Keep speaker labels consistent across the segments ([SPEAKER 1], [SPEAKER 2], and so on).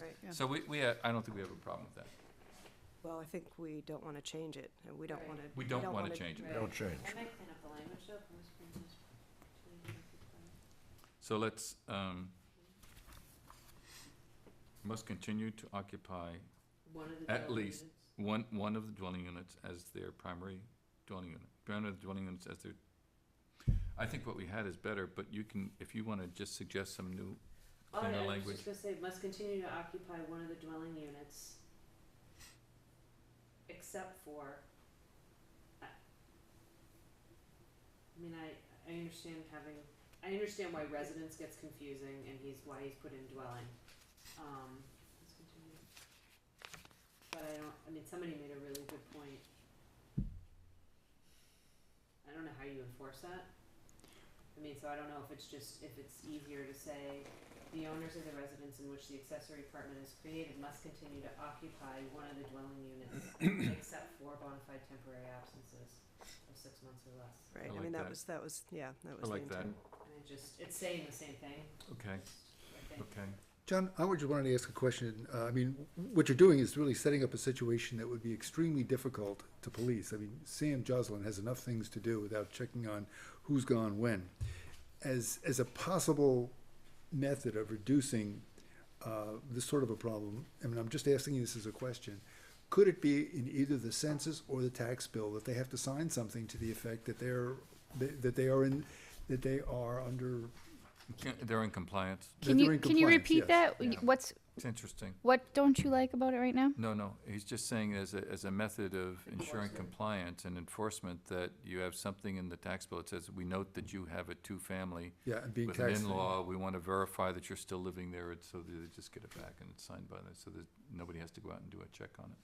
[SPEAKER 1] Right.
[SPEAKER 2] Yeah.
[SPEAKER 3] So we, we, uh, I don't think we have a problem with that.
[SPEAKER 1] Well, I think we don't want to change it, and we don't
[SPEAKER 4] Right.
[SPEAKER 1] want to.
[SPEAKER 3] We don't want to change it.
[SPEAKER 4] Right.
[SPEAKER 5] Don't change.
[SPEAKER 4] I might clean up the language though, from this one, just-
[SPEAKER 3] So let's, um, must continue to occupy
[SPEAKER 4] One of the.
[SPEAKER 3] At
[SPEAKER 4] dwelling
[SPEAKER 3] least.
[SPEAKER 4] units.
[SPEAKER 3] one, one of the dwelling units as their primary dwelling unit. One of the dwelling units as their, I think what we had is better, but you can, if you want to just suggest some new,
[SPEAKER 4] Oh,
[SPEAKER 3] Cleaner
[SPEAKER 4] yeah, I was
[SPEAKER 3] language.
[SPEAKER 4] just gonna say, must continue to occupy one of the dwelling units. Except for. I I mean, I, I understand having, I understand why residence gets confusing and he's, why he's put in dwelling, um. let's continue. But I don't, I mean, somebody made a really good point. I don't know how you enforce that. I mean, so I don't know if it's just, if it's easier to say, the owners of the residence in which the accessory apartment is created must continue to occupy one of the dwelling units except for bona fide temporary absences of six months or less.
[SPEAKER 1] Right, I
[SPEAKER 3] I like
[SPEAKER 1] mean,
[SPEAKER 3] that.
[SPEAKER 1] that was, that was, yeah, that
[SPEAKER 3] I
[SPEAKER 1] was the
[SPEAKER 3] like
[SPEAKER 1] intent.
[SPEAKER 3] that,
[SPEAKER 4] And it just, it's saying the same thing,
[SPEAKER 3] okay,
[SPEAKER 4] I think.
[SPEAKER 3] okay.
[SPEAKER 5] John, I would just wanted to ask a question. Uh, I mean, what you're doing is really setting up a situation that would be extremely difficult to police. I mean, Sam Joslin has enough things to do without checking on who's gone when. As, as a possible method of reducing uh, this sort of a problem, I mean, I'm just asking you this as a question. Could it be in either the census or the tax bill that they have to sign something to the effect that they're, that that they are in, that they are under,
[SPEAKER 3] Can- They're in compliance.
[SPEAKER 5] that
[SPEAKER 6] Can
[SPEAKER 5] they're
[SPEAKER 6] you,
[SPEAKER 5] in
[SPEAKER 6] can you
[SPEAKER 5] compliance,
[SPEAKER 6] repeat
[SPEAKER 5] yes.
[SPEAKER 6] that?
[SPEAKER 3] Yeah.
[SPEAKER 6] What's,
[SPEAKER 3] It's interesting.
[SPEAKER 6] what don't you like about it right now?
[SPEAKER 3] No, no, he's just saying as a, as a method of ensuring
[SPEAKER 4] Enforcement.
[SPEAKER 3] compliance and enforcement that you have something in the tax bill that says, we note that you have a two-family
[SPEAKER 5] Yeah, and being
[SPEAKER 3] with an
[SPEAKER 5] taxed.
[SPEAKER 3] in-law, we want to verify that you're still living there, it's- so they just get it back and it's signed by them, so that nobody has to go out and do a check on it.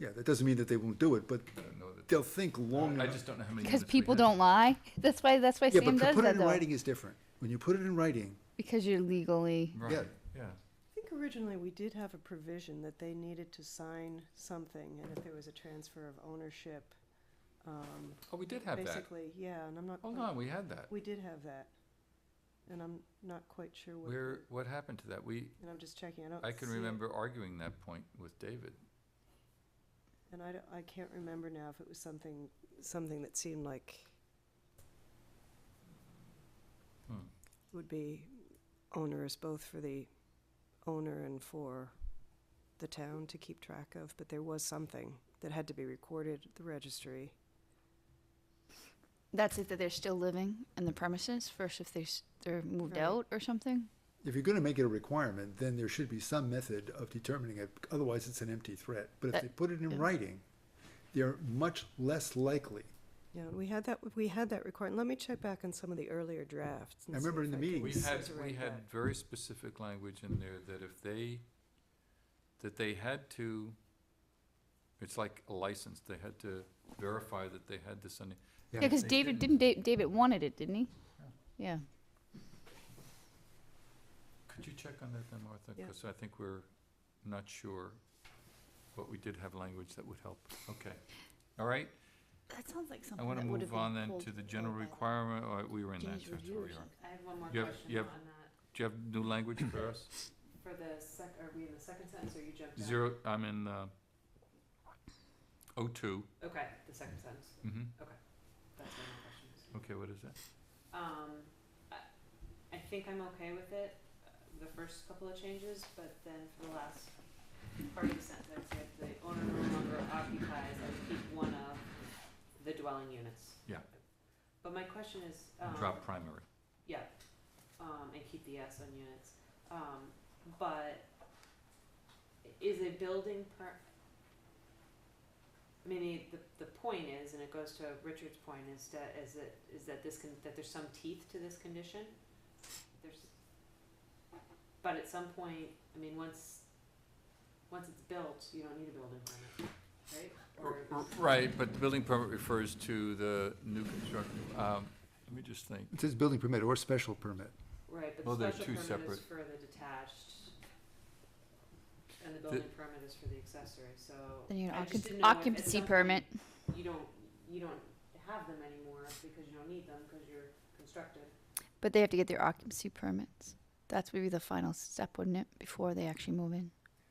[SPEAKER 5] Yeah, that doesn't mean that they won't do it, but
[SPEAKER 3] I
[SPEAKER 5] Uh,
[SPEAKER 3] don't know that-
[SPEAKER 5] they'll think long
[SPEAKER 3] I
[SPEAKER 5] enough.
[SPEAKER 3] just don't know how many.
[SPEAKER 6] Because
[SPEAKER 3] units we
[SPEAKER 6] people
[SPEAKER 3] had.
[SPEAKER 6] don't lie. That's why, that's why
[SPEAKER 5] yeah,
[SPEAKER 6] Sam
[SPEAKER 5] but to
[SPEAKER 6] does
[SPEAKER 5] put it
[SPEAKER 6] that
[SPEAKER 5] in
[SPEAKER 6] though.
[SPEAKER 5] writing is different. When you put it in writing,
[SPEAKER 6] Because you're legally,
[SPEAKER 3] Right, yeah.
[SPEAKER 1] I think originally we did have a provision that they needed to sign something, and if there was a transfer of ownership, um,
[SPEAKER 3] Oh, we did have that.
[SPEAKER 1] basically, yeah, and I'm not.
[SPEAKER 3] Hold on, we had that.
[SPEAKER 1] We did have that, and I'm not quite sure what,
[SPEAKER 3] Where, what happened to that? We,
[SPEAKER 1] and I'm just checking, I don't.
[SPEAKER 3] I can
[SPEAKER 1] see it,
[SPEAKER 3] remember arguing that point with David.
[SPEAKER 1] And I, don't- I can't remember now if it was something, something that seemed like
[SPEAKER 3] Hmm.
[SPEAKER 1] would be onerous both for the owner and for the town to keep track of, but there was something that had to be recorded at the registry.
[SPEAKER 6] that's it, that they're still living in the premises first if they, s- they're moved
[SPEAKER 1] Right.
[SPEAKER 6] out or something?
[SPEAKER 5] if you're going to make it a requirement, then there should be some method of determining it. Otherwise, it's an empty threat. But if
[SPEAKER 6] That-
[SPEAKER 5] they put it in
[SPEAKER 6] Uh, yeah.
[SPEAKER 5] writing, they're much less likely.
[SPEAKER 1] Yeah, we had that, we had that record, let me check back on some of the earlier drafts. and
[SPEAKER 5] I
[SPEAKER 1] see
[SPEAKER 5] remember
[SPEAKER 1] if
[SPEAKER 5] in the
[SPEAKER 1] I can
[SPEAKER 3] We
[SPEAKER 5] meetings.
[SPEAKER 3] had,
[SPEAKER 1] resurrect
[SPEAKER 3] we had
[SPEAKER 1] that.
[SPEAKER 3] very specific language in there that if they, that they had to, it's like a license, they had to verify that they had this on.
[SPEAKER 6] Yeah, because
[SPEAKER 3] They
[SPEAKER 6] David, didn't
[SPEAKER 3] didn't-
[SPEAKER 6] Da- David wanted it, didn't he? Yeah.
[SPEAKER 3] Could you check on that then, Martha?
[SPEAKER 1] Yeah.
[SPEAKER 3] Because I think we're not sure, but we did have language that would help. Okay. All right,
[SPEAKER 6] That sounds like
[SPEAKER 3] I
[SPEAKER 6] something
[SPEAKER 3] want to
[SPEAKER 6] that would have
[SPEAKER 3] move
[SPEAKER 6] been
[SPEAKER 3] on then to
[SPEAKER 6] pulled
[SPEAKER 3] the general
[SPEAKER 6] by
[SPEAKER 3] requirement, or we were in that,
[SPEAKER 6] James
[SPEAKER 3] so that's
[SPEAKER 6] review
[SPEAKER 3] where
[SPEAKER 6] or
[SPEAKER 3] we are.
[SPEAKER 6] something.
[SPEAKER 4] I have one more
[SPEAKER 3] You have-
[SPEAKER 4] question
[SPEAKER 3] you
[SPEAKER 4] on
[SPEAKER 3] have-
[SPEAKER 4] that,
[SPEAKER 3] Do you have new language for us?
[SPEAKER 4] for the sec, are we in the second sentence or you jumped out?
[SPEAKER 3] Zero, I'm in, uh, O two.
[SPEAKER 4] Okay, the second sentence,
[SPEAKER 3] Mm-hmm.
[SPEAKER 4] that's where my question is.
[SPEAKER 3] Okay, what is that?
[SPEAKER 4] Um, I, I think I'm okay with it, uh, the first couple of changes, but then for the last part of the sentence, if the owner no longer occupies, I would keep one of the dwelling units.
[SPEAKER 3] Yeah.
[SPEAKER 4] But my question is, um.
[SPEAKER 3] Drop primary.
[SPEAKER 4] Yeah, um, and keep the S on units, um, but is a building per, I mean, the- the, the point is, and it goes to Richard's point, is that, is that, is that this can, that there's some teeth to this condition? There's, but at some point, I mean, once, once it's built, you don't need a building permit, right?
[SPEAKER 3] R-
[SPEAKER 4] Or-
[SPEAKER 3] r- Right, but the building permit refers to the new construction, um, let me just think.
[SPEAKER 5] It says building permit or special permit.
[SPEAKER 4] Right,
[SPEAKER 3] Well,
[SPEAKER 4] but
[SPEAKER 3] they're
[SPEAKER 4] the special
[SPEAKER 3] two
[SPEAKER 4] permit is
[SPEAKER 3] separate-
[SPEAKER 4] for the detached. And the building permit is for the accessory, so.
[SPEAKER 6] Then you
[SPEAKER 4] I
[SPEAKER 6] have
[SPEAKER 4] just
[SPEAKER 6] an
[SPEAKER 4] didn't know if at
[SPEAKER 6] occupancy
[SPEAKER 4] some point
[SPEAKER 6] permit.
[SPEAKER 4] You don't, you don't have them anymore because you don't need them because you're constructed.
[SPEAKER 6] But they have to get their occupancy permits. That's would be the final step, wouldn't it, before they actually move in?